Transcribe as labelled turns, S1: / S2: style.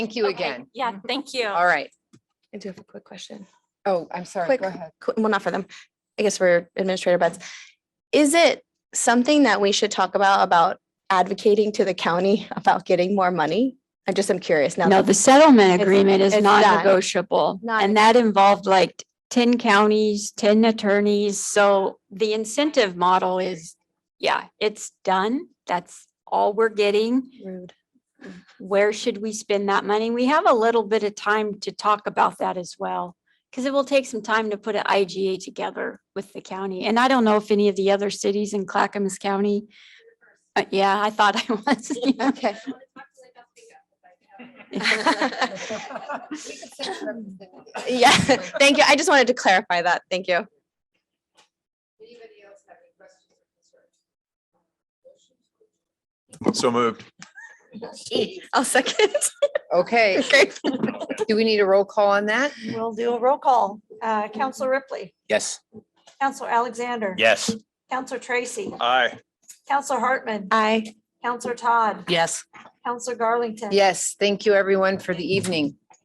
S1: Thank you
S2: Okay,
S1: again. Mm-hmm.
S2: Yeah, thank you.
S1: All right.
S3: I do have a quick question.
S1: Oh, I'm sorry.
S3: Quick,
S1: Go ahead.
S3: qu- well, not for them, I guess for Administrator Betts. Is it something that we should talk about, about advocating to the county about getting more money? I just am curious now.
S4: No,
S3: that-
S4: the settlement
S3: It's-
S4: agreement is
S3: it's not-
S4: non-negotiable
S3: not-
S4: and that involved like ten counties, ten attorneys. So the incentive model is, yeah, it's done. That's all we're getting.
S3: Rude.
S4: Where should we spend that money? We have a little bit of time to talk about that as well. Because it will take some time to put an IGA together with the county. And I don't know if any of the other cities in Clackamas County. Uh, yeah, I thought I was. yeah.
S3: Okay. Yeah, thank you. I just wanted to clarify that. Thank you.
S5: So moved.
S3: I'll second.
S1: Okay,
S3: Great.
S1: do we need a roll call on that?
S6: We'll do a roll call. Uh, Counselor Ripley,
S5: Yes.
S6: Counselor Alexander.
S5: Yes.
S6: Counselor Tracy,
S5: Aye.
S6: Counselor Hartman,
S3: Aye.
S6: Counselor Todd,
S1: Yes.
S6: Counselor Garlington.
S1: Yes, thank you everyone for the evening.